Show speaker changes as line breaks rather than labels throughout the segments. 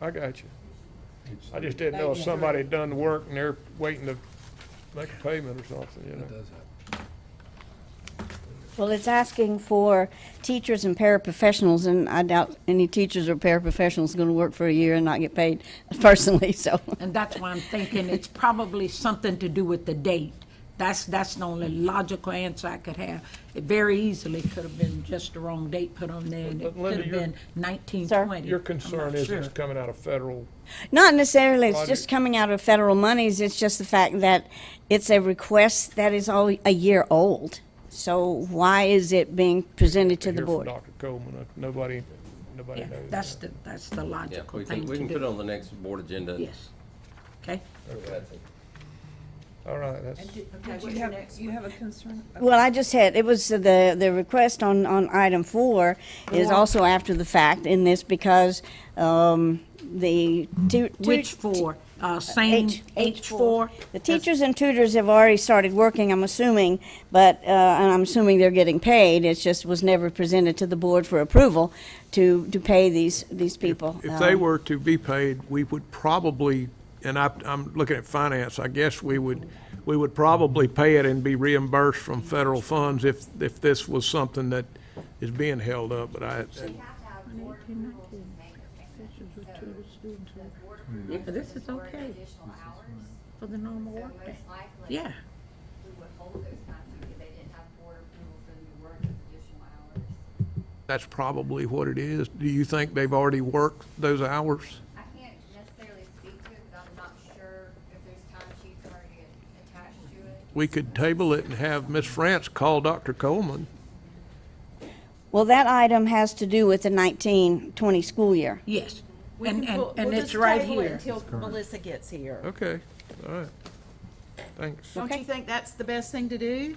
I got you. I just didn't know if somebody had done the work and they're waiting to make a payment or something, you know?
It does happen.
Well, it's asking for teachers and paraprofessionals, and I doubt any teachers or paraprofessionals going to work for a year and not get paid personally, so.
And that's why I'm thinking it's probably something to do with the date. That's, that's the only logical answer I could have. It very easily could have been just the wrong date put on there, and it
But Linda,
could have
your-
been nineteen twenty.
Your concern is it's coming out of federal,
Not necessarily, it's
Audrey.
just coming out of federal monies, it's just the fact that it's a request that is all a year old. So why is it being presented to
to
the
hear from
board?
Dr. Coleman, uh, nobody, nobody
Yeah,
knows.
that's the, that's the
Yeah,
logical
we
thing
can, we
to
can put it
do.
on the next board agenda.
Yes. Okay?
All right, that's,
You have, you have a concern?
Well, I just had, it was the, the request on, on item four is also after the fact in this because, um, the. tu- tu-
Which four? Uh, same,
H-
H four?
The teachers and tutors have already started working, I'm assuming, but, uh, and I'm assuming they're getting paid. It just was never presented to the board for approval to, to pay these, these people.
If they
Um,
were to be paid, we would probably, and I, I'm looking at finance, I guess we would, we would probably pay it and be reimbursed from federal funds if, if this was something that is being held up, but I,
Yeah, this is okay for the normal work day. Yeah.
We would hold those contracts if they didn't have board approval for them to work those additional hours.
that's probably what it is. Do you think they've already worked those hours?
I can't necessarily speak to it, but I'm not sure if there's time sheets already attached to it.
We could table it and have Ms. France call Dr. Coleman.
Well, that item has to do with the nineteen, twenty school year.
Yes. And, and, and it's right here.
Until Melissa gets here.
Okay, all right. Thanks.
Don't you think that's the best thing to do,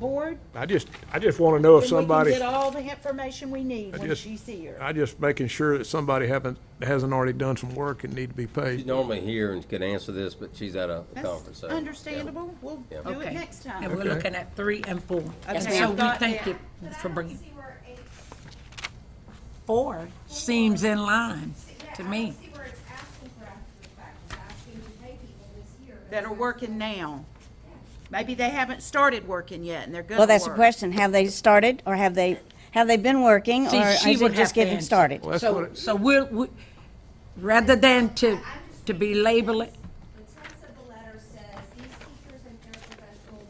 board?
I just, I just want to know if
Then we can
somebody,
get all the information we need when
just-
she's here.
I just making sure that somebody haven't, hasn't already done some work and need to be
She's
paid.
normally here and could answer this, but she's at a conference.
That's
so, yeah.
understandable. We'll do it
Okay.
next
And
time.
we're looking at three and four.
Yes,
So
ma'am.
we thank you
But I
for
don't
bringing.
see where eight,
Four seems in line
yeah, I
to
don't
me.
see where it's asking for after the fact, it's asking to pay people this year. but
That
it's
are
not-
working now. Maybe they haven't started working yet and they're gonna
Well,
work.
that's the question. Have they started or have they, have they been working
See,
or
she
is
would
it just
have to
getting
answer.
started?
Well, that's what
So,
it-
so we're, we- rather than to, to be labeling,
The text of the letter says, these teachers and paraprofessionals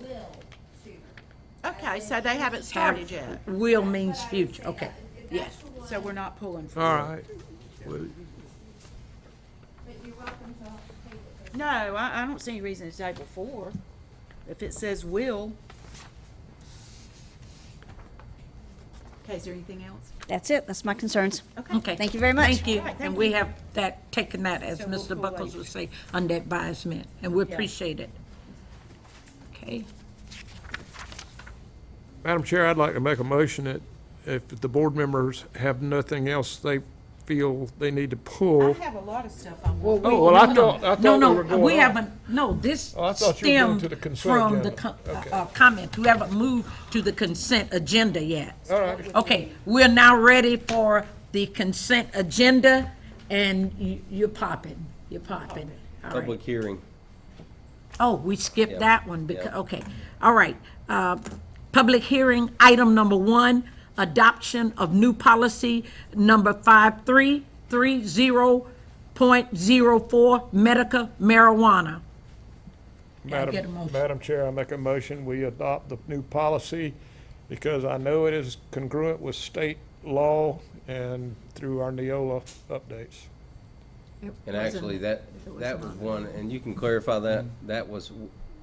will tutor.
Okay, so they haven't started yet.
will means future, okay, yes.
So we're not pulling for
All
you.
right. Well,
But you're welcome to take it.
No, I, I don't see any reason to table four. If it says will. Okay, is there anything else?
That's it. That's my concerns.
Okay.
Thank you very much.
Thank you,
All right, thank
and we
you.
have that, taken that, as
So we'll
Mr.
pull
Buckles
that.
would say, under advisement, and we appreciate it. Okay,
Madam Chair, I'd like to make a motion that if the board members have nothing else they feel they need to
I
pull.
have a lot of stuff I want.
Oh, well, I thought, I thought
no,
we
no,
were going
we
on.
haven't, no, this
Oh, I thought you were going to the
stemmed
consent
from the
agenda.
co- uh,
Okay.
uh, comments, we haven't moved to the consent agenda yet.
All right.
Okay, we're now ready for the consent agenda, and you- you're popping, you're popping. All right.
Public hearing.
Oh, we skipped
Yeah.
that one because,
Yeah.
okay, all right. Uh, Public hearing, item number one, adoption of new policy number 5330.04, medical marijuana. I get a
Madam,
motion?
Madam Chair, I make a motion, we adopt the new policy because I know it is congruent with state law and through our Neola updates.
And actually, that, that was one, and you can clarify that, that was,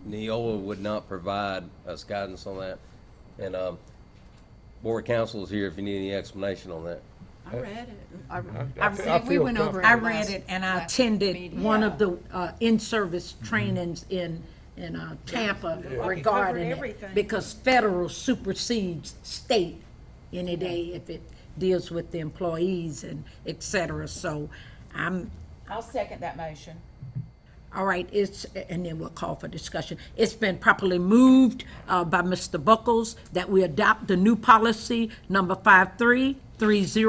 Neola would not provide us guidance on that. And, um, board counsel is here if you need any explanation on that.
I read it.
I
I-
fe- I
We
feel
went over
comfortable.
it
I
last.
read it and I attended one of the uh, in-service trainings in, in uh, Tampa regarding
everything.
it. Because federal supersedes state any day if it deals with the employees and et cetera. So I'm,
I'll second that motion.
All right, it's, and then we'll call for discussion. It's been properly moved uh, by Mr. Buckles that we adopt the new policy number 5330